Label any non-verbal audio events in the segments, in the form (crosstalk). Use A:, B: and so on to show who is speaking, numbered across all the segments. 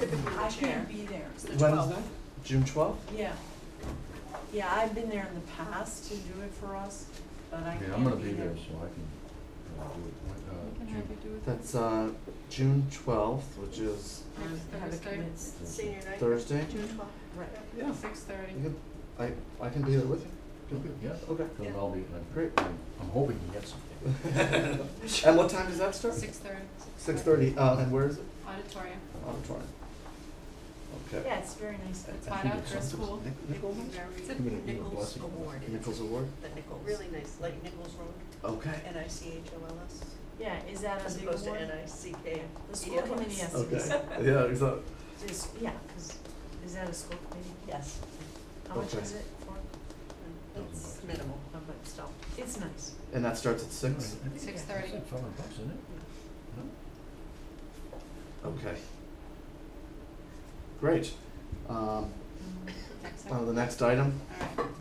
A: typically
B: I
A: the chair.
B: can't be there.
A: It's the
C: When is
A: 12th.
C: that? June twelfth?
B: Yeah. Yeah, I've been there in the past to do it for us, but I can't be
D: Okay,
B: there.
D: I'm gonna be there, so I can, uh, do it, uh,
E: Can
D: June.
E: have you do it
C: That's uh June twelfth, which is
B: Um, have a
E: Thursday.
B: commit,
A: Senior night.
C: Thursday.
E: June twelfth,
B: right.
C: Yeah.
E: six thirty.
C: You could, I I can be there with you.
D: You'll be- Yeah,
C: Okay.
D: because I'll be, I'm,
C: Great.
D: I'm hoping to get something.
C: (laughs) And what time does that start?
E: Six thirty.
C: Six thirty, uh and where is it?
E: Auditorium,
C: Auditorium. Okay.
B: Yeah, it's very nice.
E: it's
C: I
E: right
C: think
E: out
C: it's
E: for
C: something-
E: school.
C: Nic- Nichols?
A: It's a
D: Give it a- give it a
A: Nichols
D: blessing.
A: Award. It's
C: Nichols Award?
A: The Nichols. Really nice, like Nichols Road,
C: Okay.
A: N-I-C-H-O-L-S,
B: Yeah, is that a
A: as
B: big
A: opposed to
B: award?
A: N-I-C-K.
B: The school committee has to be,
C: Okay, yeah, exactly.
B: is, yeah, 'cause is that a school committee?
A: Yes.
B: How much
C: Okay.
B: is it for?
A: It's minimal.
B: Oh, But still, it's nice.
C: And that starts at six?
E: Six thirty.
D: It's five hundred bucks, isn't it? No?
C: Okay. Great. Um, uh, the next item,
E: Alright.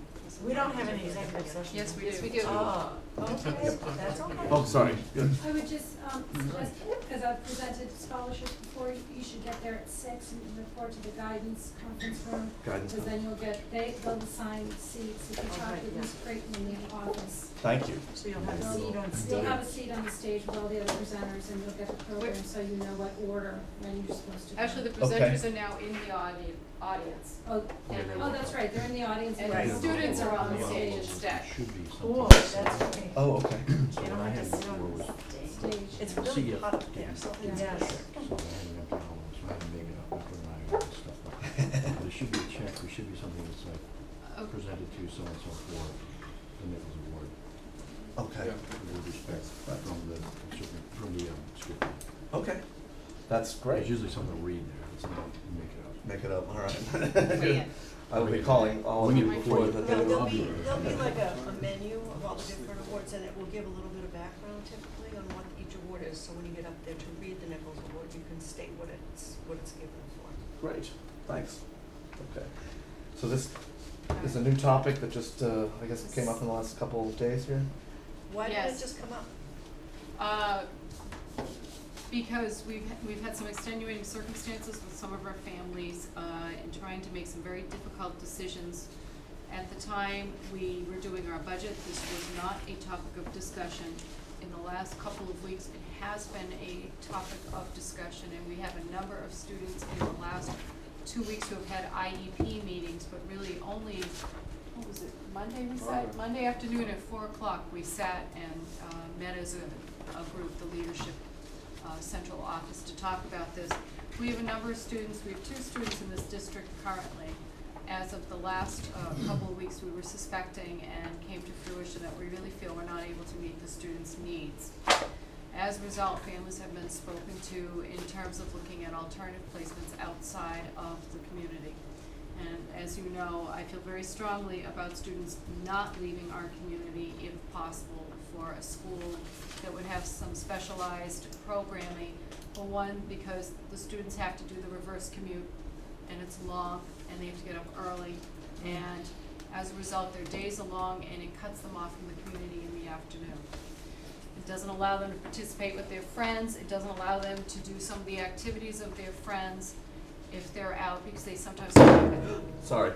B: We don't have any executive session.
E: Yes, we do.
A: Yes, we
E: do.
B: Oh, okay, that's okay.
C: oh, sorry, good.
F: I would just, um, suggest, because I've presented scholarships before, you you should get there at six and report to the guidance conference room.
C: Guidance
F: Because then you'll get, they, they'll assign seats, if you talk
B: Okay,
F: to
B: yeah.
F: Ms. Creighton in the office.
C: Thank you.
B: So you'll have a seat on stage.
F: You'll have a seat on the stage with all the other presenters and you'll get the program,
E: Wait.
F: so you know what order, when you're supposed to. go.
E: Actually, the
C: Okay.
E: presenters are now in the audi- audience,
F: Oh,
E: and
F: oh, that's right, they're in the audience.
E: And
F: but-
E: the students are on
D: Yeah.
E: stage instead.
D: Should be something.
B: Cool, that's okay.
C: Oh, okay.
D: So
B: They
D: when
B: don't
D: I
B: have to
D: had
B: sit on
D: before was-
B: the stage.
F: Stage.
B: It's
D: See
B: really
D: ya.
B: hot up there, so it's.
F: Yeah.
B: Yes.
D: So I had it up to all of us, I had to make it up, I put an eye on it and stuff like that. There should be a check, there should be something that's like
E: Oh,
D: presented to so-and-so for the Nichols Award.
C: (clears throat) Okay,
D: With respect from the, from the, um, school.
C: okay. That's
D: There's
C: great.
D: usually something to read there, it's not, make it up.
C: Make it up, all (laughs)
A: Oh, Yeah.
C: right. I will be calling all of
D: Wing
C: you
D: it
C: before the
D: before you-
A: No,
C: day.
A: there'll
C: of-
A: be, there'll be like a, a menu of all the different awards, and it will give a little bit of background typically on what each award is, so when you get up there to read the Nichols Award, you can state what it's, what it's given for.
C: Great, thanks. Okay. So this is a
E: alright.
C: new topic that just, uh, I guess came up in the last couple of days here?
A: Why did it
E: Yes.
A: just come up?
E: Uh, because we've, we've had some extenuating circumstances with some of our families, uh, in trying to make some very difficult decisions. At the time we were doing our budget, this was not a topic of discussion. In the last couple of weeks, it has been a topic of discussion, and we have a number of students in the last two weeks who have had IEP meetings, but really only, what was it, Monday we sat? Monday afternoon at four o'clock, we sat and, uh, met as a, a group, the leadership, uh, central office to talk about this. We have a number of students, we have two students in this district currently. As of the last, uh, couple of weeks, we were suspecting and came to fruition that we really feel we're not able to meet the students' needs. As a result, families have been spoken to in terms of looking at alternative placements outside of the community. And as you know, I feel very strongly about students not leaving our community if possible for a school that would have some specialized programming. For one, because the students have to do the reverse commute and it's long and they have to get up early. And as a result, their days are long and it cuts them off from the community in the afternoon. It doesn't allow them to participate with their friends, it doesn't allow them to do some of the activities of their friends if they're out, because they sometimes, don't
C: Sorry,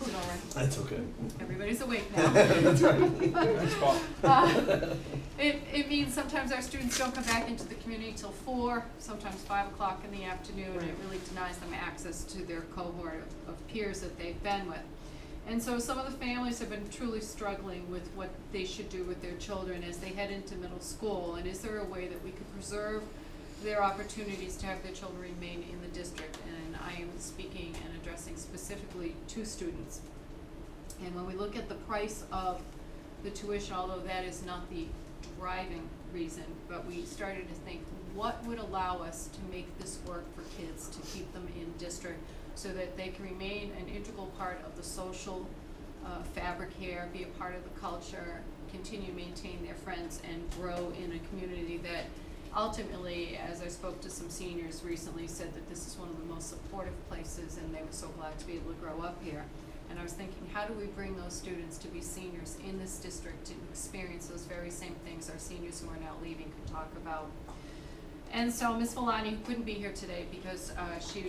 E: worry,
C: that's okay.
E: everybody's awake now.
C: (laughs) That's right.
E: (laughs) Uh, It, it means sometimes our students don't come back into the community till four, sometimes five o'clock in the afternoon. and It really denies them access to their cohort of, of peers that they've been with. And so some of the families have been truly struggling with what they should do with their children as they head into middle school. And is there a way that we could preserve their opportunities to have their children remain in the district? And I am speaking and addressing specifically two students. And when we look at the price of the tuition, although that is not the driving reason, but we started to think, what would allow us to make this work for kids, to keep them in district, so that they can remain an integral part of the social uh, fabric here, be a part of the culture, continue to maintain their friends, and grow in a community that ultimately, as I spoke to some seniors recently, said that this is one of the most supportive places, and they were so glad to be able to grow up here. And I was thinking, how do we bring those students to be seniors in this district to experience those very same things our seniors who are now leaving could talk about? And so Miss Malani, who couldn't be here today because uh, she